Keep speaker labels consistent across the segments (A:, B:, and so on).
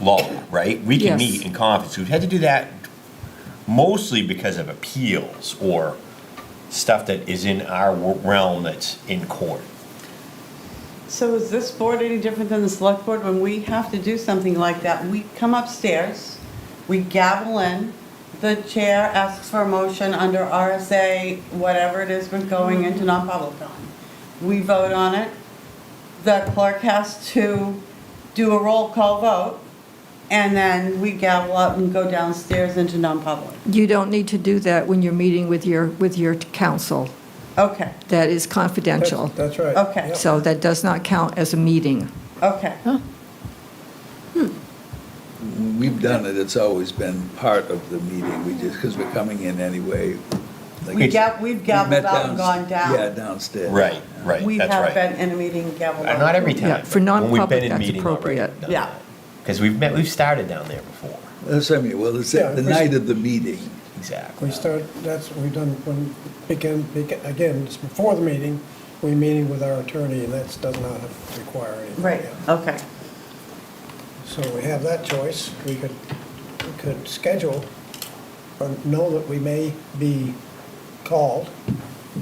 A: law, right? We can
B: Yes.
A: meet in conference. We've had to do that mostly because of appeals or stuff that is in our wo- realm that's in court.
C: So is this board any different than the select board? When we have to do something like that, we come upstairs, we gavel in, the chair asks for a motion under RSA, whatever it is we're going into non-public on. We vote on it, the clerk has to do a roll call vote, and then we gavel up and go downstairs into non-public.
B: You don't need to do that when you're meeting with your, with your council.
C: Okay,
B: That is
D: That's-
B: confidential.
D: That's right.
C: Okay.
D: Yep.
B: So that does not count as a meeting.
C: okay.
E: We've done it, it's always been part of the meeting, we just, because we're coming in anyway. like-
C: We ga- we've gaveled
E: met
C: out and gone
E: downst- Yeah,
C: down.
E: downstairs.
A: Right, right,
C: We
A: that's
C: have
A: right.
C: been in a meeting, gaveled
A: Uh,
C: out.
A: Not every
B: Yeah,
A: time.
B: for
A: but when we've been
B: non-public,
A: in
B: that's
A: meeting already,
B: appropriate.
A: done
C: Yeah.
A: that. Cause we've met, we've started down there before,
E: That's what I mean, Uh, well, it's
D: Yeah,
E: the
D: we-
E: night of the meeting.
A: exactly.
D: We start, that's what we've done when, begin, begin- again, it's before the meeting, we meeting with our attorney, and that does not require anything.
C: Right,
D: yeah.
C: okay.
D: So we have that choice. We could, we could schedule or know that we may be called.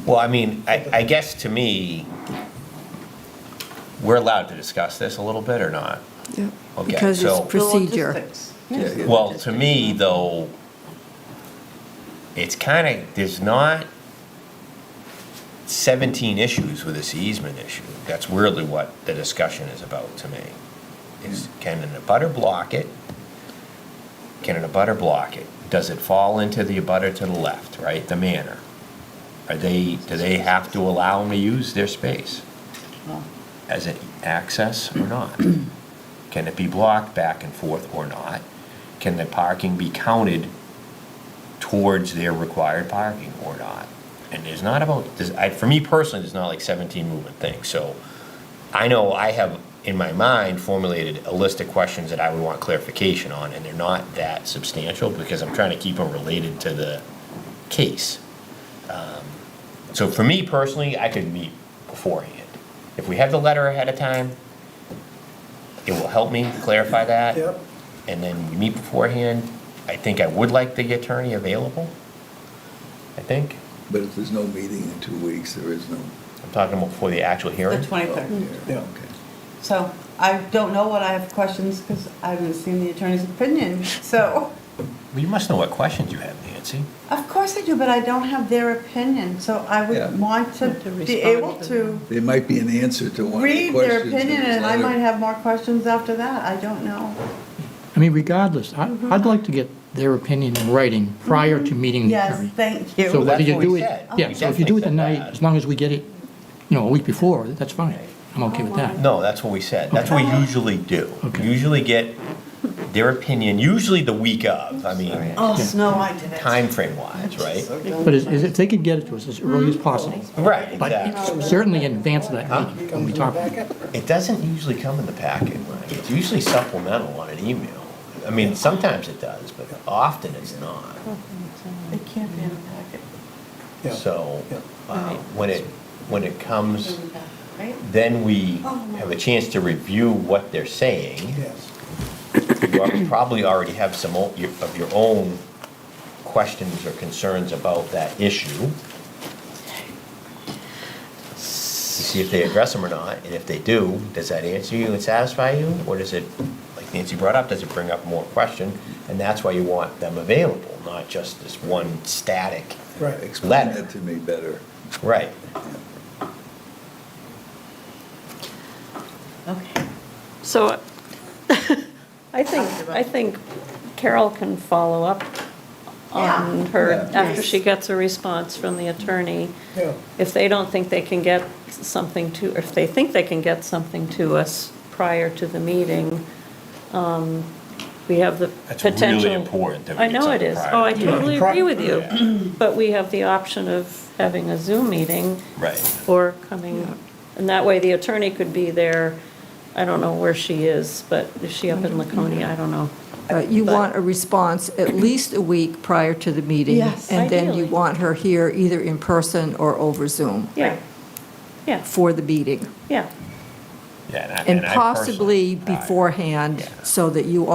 A: Well, I mean, I, I guess to me, we're allowed to discuss this a little bit or not? Okay,
B: Because it's
A: so-
C: The
B: procedure.
C: logistics.
E: Yeah, yeah.
A: Well, to me, though, it's kind of, there's not 17 issues with this easement issue. That's really what the discussion is about to me. Is can an abutter block it? Can an abutter block it? Does it fall into the abutter to the left, right, the manor? Are they, do they have to allow them to use their space as an access or not? Can it be blocked back and forth or not? Can the parking be counted towards their required parking or not? And there's not about, there's, I, for me personally, there's not like seventeen movement things, so I know I have in my mind formulated a list of questions that I would want clarification on, and they're not that substantial because I'm trying to keep them related to the case. Um, So for me personally, I could meet beforehand. If we have the letter ahead of time, it will help me clarify that
D: Yep.
A: and then we meet beforehand. I think I would like the attorney available. I think.
E: But if there's no meeting in two weeks, there is no.
A: I'm talking about before the actual
C: The
A: hearing.
C: 23rd.
D: Yeah.
E: Okay.
C: So I don't know what I have questions because I haven't seen the attorney's opinion. So,
A: Well, you must know what questions you have, Nancy.
C: of course I do, but I don't have their opinion. So I
E: Yeah.
C: would want to
F: To
C: be
F: respond
C: able
F: to
C: to
E: There might be an answer to one of the
C: read
E: questions.
C: their
E: in
C: opinion
E: this
C: and I
E: letter.
C: might have more questions after that. I don't know.
G: I mean, regardless, I, I'd like to get their opinion in writing prior
A: Mm-hmm.
G: to meeting the
C: Yes,
G: attorney.
C: thank
G: So
C: you.
A: that's
G: whether you
A: what we
G: do it,
A: said. Oh,
G: yeah,
A: We
G: so if
A: definitely
G: you do it the
A: said
G: night,
A: that.
G: as long as we get it, you know, a week before, that's fine. I'm okay with that.
A: No, that's what we said. That's what we usually do.
G: Okay.
A: Usually get their opinion, usually the week of, I mean,
C: Oh, Snow, I did it.
A: time frame wise, right?
G: But is, is if they could get it to us as early as possible,
A: Right,
G: but
C: Oh,
A: exactly.
G: certainly in advance of that meeting, when
D: Comes
G: we
D: in the
G: talk.
D: packet.
A: It doesn't usually come in the packet, Ryan. It's usually supplemental on an email. I mean, sometimes it does, but often it's not.
C: It can't be in the packet.
D: Yeah.
A: So,
D: Yeah.
A: uh, when it, when it comes,
C: Right?
A: then we have a chance to review what they're saying.
D: Yes.
A: You al- probably already have some o- your- of your own questions or concerns about that issue. To see if they address them or not, and if they do, does that answer you and satisfy you? Or does it, like Nancy brought up, does it bring up more question? And that's why you want them available, not just this one static,
D: Right.
E: Explain
A: Letter.
E: that to me better.
A: right?
C: Okay.
F: So I think, I think Carol can follow up
C: Um,
F: on her,
E: Yeah.
F: after she gets a response from the attorney.
D: Yeah.
F: If they don't think they can get something to, if they think they can get something to us prior to the meeting, um, we have the
A: That's really
F: potential.
A: important that we
F: I
A: get
F: know it
A: something
F: is.
A: prior
F: Oh, I
A: to
F: totally agree with you.
A: Yeah.
F: But we have the option of having a Zoom meeting.
A: Right.
F: Or coming, and that way the attorney could be there. I don't know where she is, but is she up in Laconia? I don't know.
B: But Uh, you want a response at least a week prior to the meeting.
C: Yes.
B: And then you
F: Ideally.
B: want her here either in person or over Zoom
F: Yeah, yeah,
B: for the meeting.
F: yeah.
A: Yeah, I-
B: And
A: I personally-
B: possibly
A: Right.
B: beforehand,
A: Yeah.
B: so that you